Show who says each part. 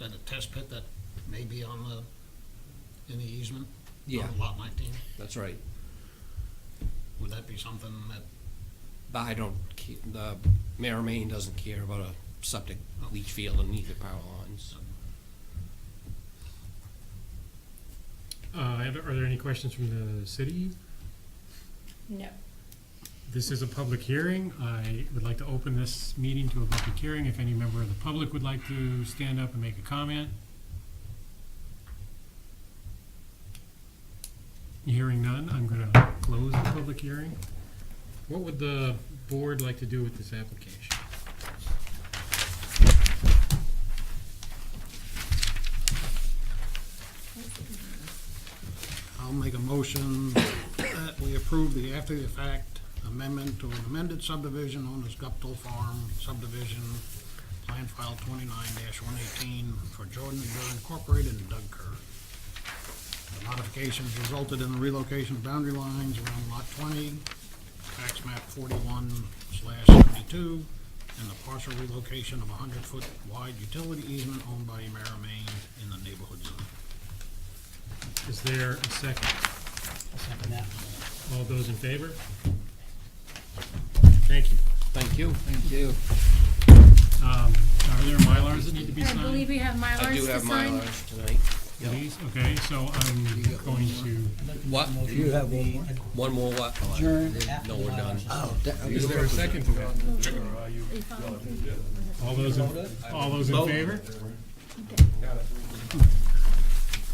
Speaker 1: test pit that may be on the, in the easement?
Speaker 2: Yeah,
Speaker 1: On lot nineteen?
Speaker 2: that's right.
Speaker 1: Would that be something that,
Speaker 2: But I don't, ke- the mayor of Maine doesn't care about a septic leach field in either power lines.
Speaker 3: Uh, and are there any questions from the city?
Speaker 4: No.
Speaker 3: This is a public hearing. I would like to open this meeting to a public hearing. If any member of the public would like to stand up and make a comment. Hearing none, I'm gonna close the public hearing. What would the board like to do with this application?
Speaker 1: I'll make a motion that we approve the after-the-fact amendment to an amended subdivision known as Guptal Farm subdivision, plan file twenty-nine one eighteen for Jordan and Bill Incorporated and Doug Kerr. The modifications resulted in the relocation of boundary lines around lot twenty, tax map forty-one slash seventy-two, and the partial relocation of a hundred-foot wide utility easement owned by Emera Maine in the neighborhood zone.
Speaker 3: Is there a second?
Speaker 1: Second that.
Speaker 3: All those in favor? Thank you.
Speaker 2: Thank you. Thank you.
Speaker 3: Um, are there Mylars that need to be
Speaker 4: I
Speaker 3: signed?
Speaker 4: believe we have Mylars to sign.
Speaker 2: I do have my Mylars tonight. Yep.
Speaker 3: Please, okay, so I'm going to,
Speaker 2: What?
Speaker 5: Do you have one more?
Speaker 2: One more what?
Speaker 5: Adjourn
Speaker 2: No, we're done.
Speaker 5: Oh,
Speaker 3: is there a second to that?
Speaker 4: Are you following through?
Speaker 3: All those, in all those in favor?